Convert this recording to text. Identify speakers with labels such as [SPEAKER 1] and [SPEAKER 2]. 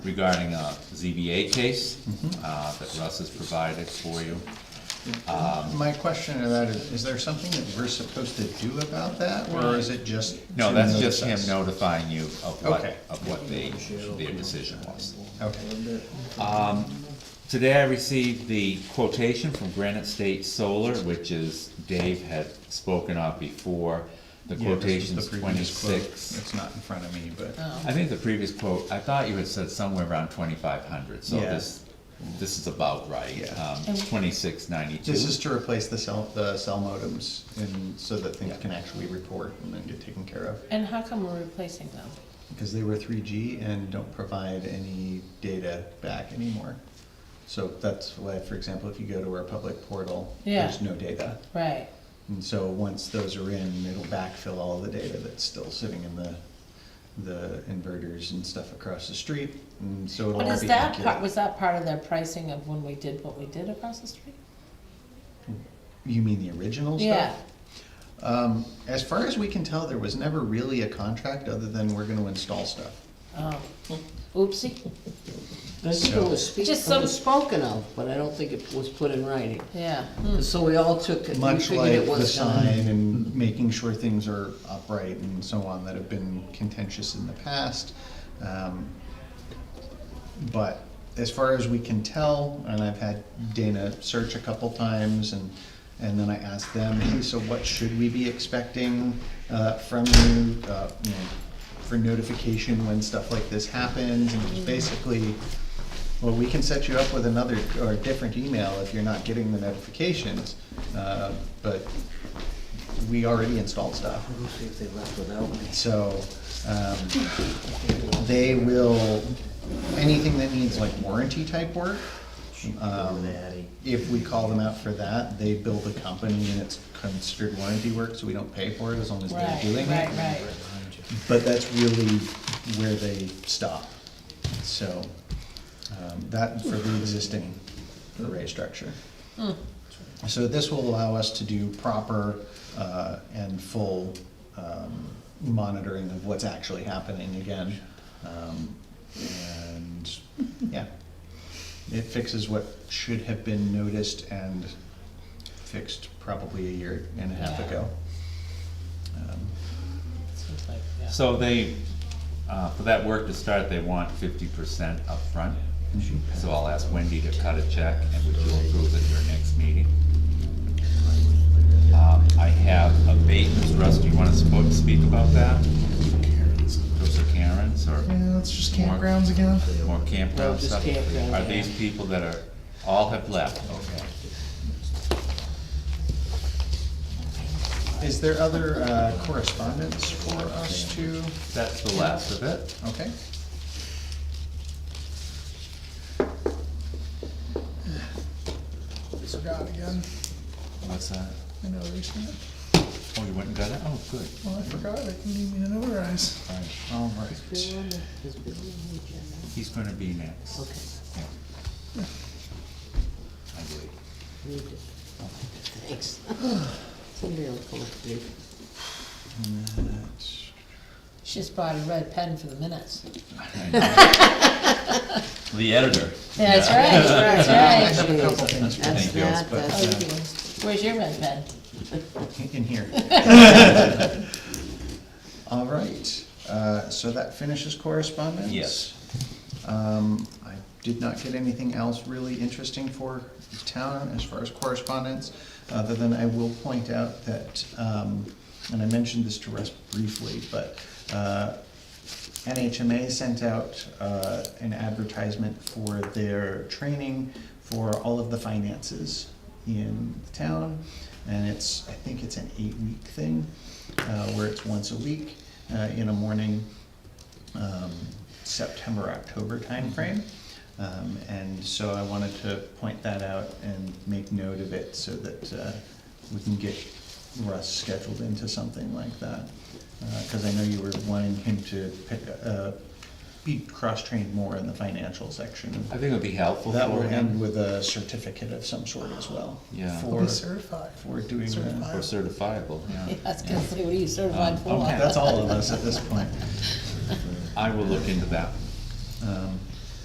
[SPEAKER 1] regarding a ZBA case
[SPEAKER 2] Mm-hmm.
[SPEAKER 1] uh, that Russ has provided for you.
[SPEAKER 2] My question to that is, is there something that we're supposed to do about that, or is it just?
[SPEAKER 1] Uh, No,
[SPEAKER 2] to
[SPEAKER 1] that's just him
[SPEAKER 2] notice us?
[SPEAKER 1] notifying you of what,
[SPEAKER 2] Okay.
[SPEAKER 1] of what they, their decision was.
[SPEAKER 2] Okay, Um,
[SPEAKER 1] Today I received the quotation from Granite State Solar, which is, Dave had spoken of before. The
[SPEAKER 2] Yeah, this was
[SPEAKER 1] quotation's
[SPEAKER 2] the previous quote.
[SPEAKER 1] twenty-six.
[SPEAKER 2] It's not in front of me,
[SPEAKER 3] Uh,
[SPEAKER 2] but,
[SPEAKER 3] Oh.
[SPEAKER 1] I think the previous quote, I thought you had said somewhere around twenty-five hundred, so
[SPEAKER 2] Yeah.
[SPEAKER 1] this, this is about right. Um,
[SPEAKER 2] Yeah.
[SPEAKER 1] Twenty-six ninety-two.
[SPEAKER 2] this is to replace the cell, the cell modems, and so that things can actually report and then get taken care of.
[SPEAKER 3] And how come we're replacing them?
[SPEAKER 2] Because they were three G and don't provide any data back anymore. So that's why, for example, if you go to our public portal,
[SPEAKER 3] Yeah.
[SPEAKER 2] there's no data.
[SPEAKER 3] Right,
[SPEAKER 2] And so once those are in, it'll backfill all the data that's still sitting in the, the inverters and stuff across the street, and so it'll
[SPEAKER 3] but
[SPEAKER 2] all
[SPEAKER 3] is
[SPEAKER 2] be
[SPEAKER 3] that part,
[SPEAKER 2] accurate.
[SPEAKER 3] was that part of their pricing of when we did what we did across the street?
[SPEAKER 2] You mean the original stuff?
[SPEAKER 3] Yeah,
[SPEAKER 2] Um, as far as we can tell, there was never really a contract other than we're gonna install stuff.
[SPEAKER 3] oh, oopsie,
[SPEAKER 4] I think
[SPEAKER 2] So-
[SPEAKER 4] it was speak-
[SPEAKER 3] Just
[SPEAKER 4] it
[SPEAKER 3] some-
[SPEAKER 4] was spoken of, but I don't think it was put in writing.
[SPEAKER 3] yeah, Hmm.
[SPEAKER 4] So we all took it, we
[SPEAKER 2] Much
[SPEAKER 4] figured
[SPEAKER 2] like
[SPEAKER 4] it
[SPEAKER 2] the
[SPEAKER 4] was done.
[SPEAKER 2] sign and making sure things are upright and so on that have been contentious in the past. Um, But as far as we can tell, and I've had Dana search a couple times and, and then I asked them, hey, so what should we be expecting uh, from you, uh, you know, for notification when stuff like this happens? And it was
[SPEAKER 4] Mm-hmm.
[SPEAKER 2] basically, well, we can set you up with another or a different email if you're not getting the notifications, uh, but we already installed stuff.
[SPEAKER 4] Let me see if they left without me.
[SPEAKER 2] So, um, they will, anything that needs like warranty type work, um,
[SPEAKER 4] Daddy.
[SPEAKER 2] if we call them out for that, they build a company and it's considered warranty work, so we don't pay for it as long as they're
[SPEAKER 3] right,
[SPEAKER 2] doing it.
[SPEAKER 3] right, right.
[SPEAKER 2] But that's really where they stop. So, um, that for the existing array structure. So this will allow us to do proper, uh, and full, um, monitoring of what's actually happening again. Um, and, yeah. It fixes what should have been noticed and fixed probably a year and a half
[SPEAKER 3] Yeah.
[SPEAKER 2] ago.
[SPEAKER 3] Seems like, yeah.
[SPEAKER 1] So they, uh, for that work to start, they want fifty percent upfront. So I'll ask Wendy to cut a check and would you approve at your next meeting? Um, I have abatements, Russ, do you wanna spo- speak about that? Those are Karen's or
[SPEAKER 5] Yeah, it's just campgrounds again.
[SPEAKER 1] more campground
[SPEAKER 4] Well, just
[SPEAKER 1] stuff?
[SPEAKER 4] campground,
[SPEAKER 1] Are
[SPEAKER 4] yeah.
[SPEAKER 1] these people that are, all have left, okay.
[SPEAKER 2] Is there other uh, correspondence for us to,
[SPEAKER 1] That's the last of it.
[SPEAKER 2] okay?
[SPEAKER 5] Forgot again.
[SPEAKER 1] What's that?
[SPEAKER 5] I know recently.
[SPEAKER 1] Oh, you went and got it? Oh, good.
[SPEAKER 5] Well, I forgot. It need me to notarize.
[SPEAKER 1] All right.
[SPEAKER 2] All right.
[SPEAKER 4] Bill on the- is Bill on the agenda?
[SPEAKER 1] He's gonna be next.
[SPEAKER 4] Okay.
[SPEAKER 1] Yeah. I believe.
[SPEAKER 4] we did. Thanks. Somebody will come up to me.
[SPEAKER 3] She just bought a red pen for the minutes.
[SPEAKER 1] The editor.
[SPEAKER 3] That's right, that's right.
[SPEAKER 2] have a couple things for
[SPEAKER 4] That's
[SPEAKER 1] Thank you.
[SPEAKER 4] that, that's
[SPEAKER 3] Oh, you do. Where's your red pen?
[SPEAKER 2] In here. All right, uh, so that finishes correspondence?
[SPEAKER 1] Yes.
[SPEAKER 2] Um, I did not get anything else really interesting for town as far as correspondence, other than I will point out that, um, and I mentioned this to Russ briefly, but, uh, NHMA sent out, uh, an advertisement for their training for all of the finances in the town. And it's, I think it's an eight-week thing, uh, where it's once a week, uh, in a morning, um, September, October timeframe. Um, and so I wanted to point that out and make note of it so that, uh, we can get Russ scheduled into something like that. Uh, cause I know you were wanting him to pick, uh, be cross-trained more in the financial section.
[SPEAKER 1] I think it would be helpful
[SPEAKER 2] That will
[SPEAKER 1] for
[SPEAKER 2] end
[SPEAKER 1] him.
[SPEAKER 2] with a certificate of some sort as well.
[SPEAKER 1] Yeah.
[SPEAKER 2] for-
[SPEAKER 5] I'll be certified.
[SPEAKER 2] For doing that.
[SPEAKER 1] Or certifiable, yeah.
[SPEAKER 3] Yeah, I was gonna say, what are you certified
[SPEAKER 1] Um, okay.
[SPEAKER 3] for?
[SPEAKER 2] That's all of us at this point.
[SPEAKER 1] I will look into that.
[SPEAKER 2] Um,